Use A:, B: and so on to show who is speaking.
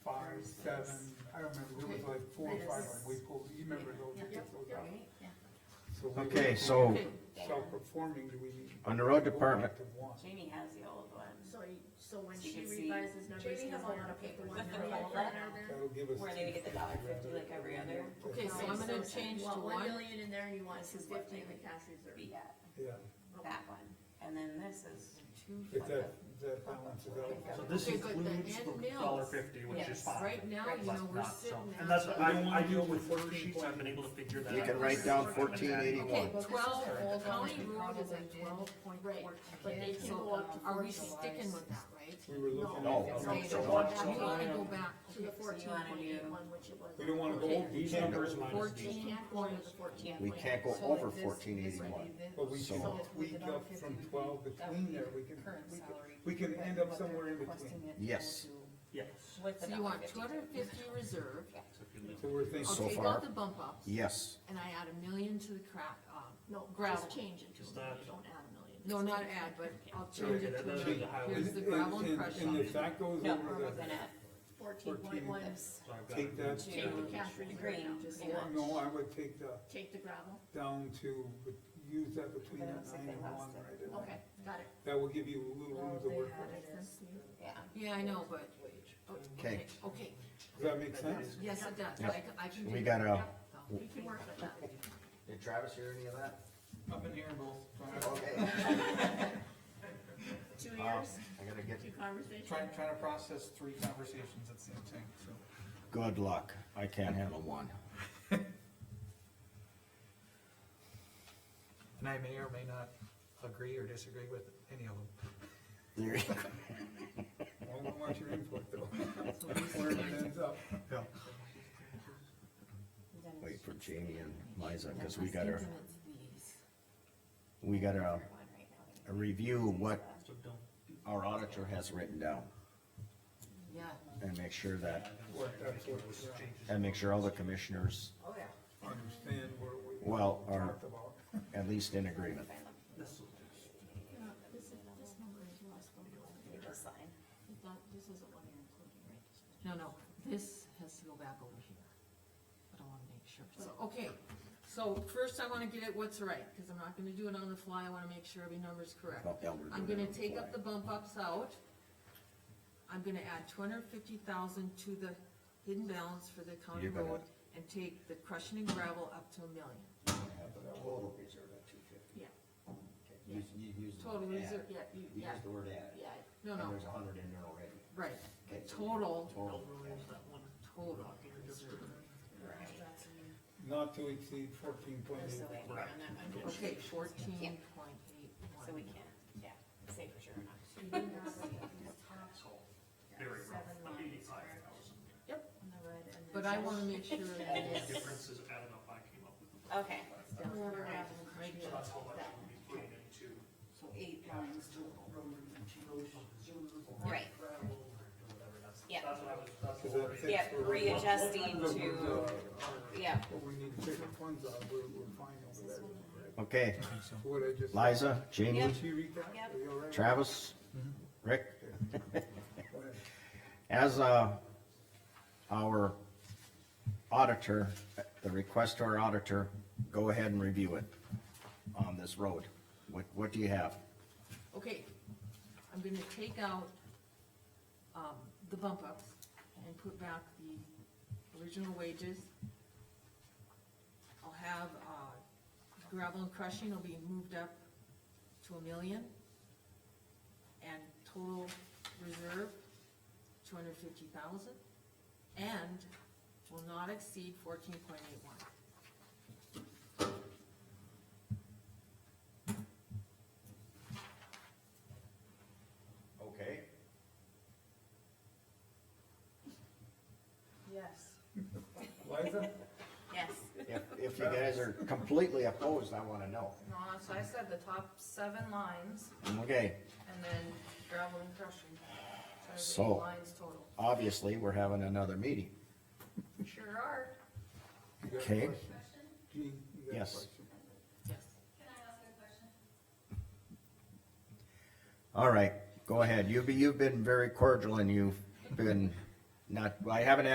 A: seven, I don't remember, there was like four or five, like we pulled, you remember those, we took those out. So we were
B: Okay, so
A: Self-performing, do we?
B: On the road
A: go back
B: department.
A: to one?
C: Jamie has the old one,
D: So, you- so when
C: So you
D: she
C: can see-
D: revises numbers,
E: Jamie
D: she has a
E: has
D: lot
E: all the
D: of paper.
E: paperwork.
D: one
C: With the
D: number,
C: roll-up?
D: one number.
A: That'll give us.
C: Where they get the $1.50 like every other.
E: Okay, so I'm gonna change
D: You
E: to
D: want one
E: one,
D: million in there, and you want
C: This
D: two
C: is what
D: fifty in the
C: they-
D: cash reserve.
C: be at,
A: Yeah,
C: that one, and then this is two.
A: if that, that balance is out.
F: So this
E: Okay, but the
F: includes
E: end
F: the
E: meals.
F: dollar fifty, which is
C: Yes.
F: fine.
E: right now, you know,
F: But
E: we're
F: not so-
E: sitting
F: And
E: at.
F: that's, I, I deal with worksheets. I've been able to figure that out.
B: You can write down fourteen
E: Okay,
B: eighty-one.
E: twelve, county road is at twelve point
D: Right,
E: four.
D: but they can go up to
E: Are
D: fourteen.
E: we sticking with that, right?
A: We were looking.
B: No.
A: at-
B: No.
E: Okay,
B: so
E: so
B: one-
E: You wanna go back
D: To the fourteen point eight one, which it was.
A: We don't wanna go over these
B: Can't go
A: numbers,
B: over
E: fourteen
D: Going
E: point,
D: to the fourteen.
B: We can't go over fourteen eighty-one.
A: but we can
B: So-
A: tweak up from twelve between there, we can, we can, we can end up somewhere in between.
B: Yes.
F: Yes.
E: so you want two hundred and fifty reserve,
F: So if you leave-
A: So we're
E: I'll
B: So
A: thinking,
E: take
B: far-
E: out the bump ups,
B: Yes,
E: and I add a million to the crack, um,
D: No,
E: Gravel.
D: just change it to
F: Is
D: a million,
F: that-
D: don't add a million.
E: no, not add, but I'll change it to,
F: Okay,
E: a
F: that's
E: million.
F: the highway.
E: here's
A: and,
E: the gravel and
A: and-
E: crush
A: and
E: up.
A: if that goes
C: No, we're
A: over
C: looking at
D: Fourteen point
A: 14.
D: one,
F: so I've
A: the,
F: got-
A: take that,
C: two,
D: Take the cash
C: the
D: reserve
C: green,
D: out, just
C: and
D: one.
A: no, I would take the,
D: take the gravel,
A: down to, use that between
C: But I
A: that
C: don't think
A: nine
C: they
A: and
C: lost
A: one
C: it.
A: right there.
D: okay, got it.
A: That will give you a little room to work with.
D: Makes sense to you?
C: yeah,
E: Yeah, I know, but, oh, okay,
B: Okay.
E: okay,
A: Does that make sense?
E: yes, it does,
B: Yep.
E: I, can- I can.
B: We
E: do
B: gotta-
E: that. So,
D: We can work with that.
B: Did Travis hear any of that?
A: I've been hearing both.
B: Okay.
D: Two
B: Um,
D: years,
B: I gotta get,
D: two conversations.
G: Trying, trying to process three conversations at the same time, so.
B: good luck. I can't handle one.
G: And I may or may not agree or disagree with any of them.
B: There-
A: I don't want your input though.
E: so this
A: Where
E: is-
A: it ends up.
B: Wait for Jamie and Liza, cause we gotta, we gotta uh, review what
F: So don't,
B: our auditor has written down
E: Yeah,
B: and make sure that,
A: What, that's what, yeah,
B: and make sure all the commissioners,
A: understand where we.
B: Well, our-
A: Talked about.
B: at least in agreement.
F: this will just.
D: No, This is, this number is less than the one.
C: you just sign.
D: I thought This isn't what you're including, right? This is-
E: no, no, this has to go back over here. But I wanna make sure, so, okay, so first I wanna get at what's right, cause I'm not gonna do it on the fly, I wanna make sure every number's correct.
B: Well, yeah, we're
E: I'm
B: doing it on
E: gonna
B: the
E: take up
B: fly.
E: the bump ups out. I'm gonna add two hundred fifty thousand to the hidden balance for the county
B: You're gonna-
E: road and take the crushing and gravel up to a million.
B: Total reserve at two fifty.
E: Yeah.
B: You, you use.
E: Total reserve,
D: Yeah, you, yeah,
B: the word add.
D: yeah,
E: no, no,
B: a hundred in there already.
E: right, total, total reserve.
A: Not to exceed fourteen point
C: There's
A: eight.
C: no way we're on that one.
E: Okay, fourteen point eight
C: So we
E: one.
C: can't, yeah, say for sure or not.
F: Very rough, eighty-five thousand.
E: But I wanna make sure that
F: The difference is I don't know if I came up with the.
C: Okay,
E: right
F: So
E: here.
F: that's how much we'll be putting into.
H: So eight lines total, road, road, road.
C: right,
H: gravel, or whatever, that's-
C: Yeah.
F: That's what I was, that's
A: Is
F: what
A: that
F: I-
A: fixed?
C: yeah,
A: Or what-
C: readjusting
A: what-
C: to, yeah,
A: What we need to take our funds out, we're, we're fine over there.
B: Okay,
A: What I just.
B: Liza, Jamie,
C: Yep.
A: Did you read that?
C: Yep.
A: Are you all right?
B: Travis, Rick,
A: Go ahead.
B: as, uh, our auditor, the request to our auditor, go ahead and review it on this road. What, what do you have?
E: Okay, I'm gonna take out, um, the bump ups and put back the original wages. I'll have, uh, gravel and crushing will be moved up to a million. And total reserve, two hundred fifty thousand, and will not exceed fourteen point eight one.
B: Okay.
E: Yes.
A: Liza?
C: yes.
B: If, if you guys are completely opposed, I wanna know.
I: No, so I said the top seven lines
B: Okay,
I: and then gravel and crushing. there's
B: So-
I: Eight lines total.
B: obviously, we're having another meeting.
I: Sure are.
A: You got a
B: Okay.
A: question? Jean, you got a
B: Yes.
A: question?
E: Yes.
B: All right, go ahead. You've, been- you've been very cordial and you've been not, I haven't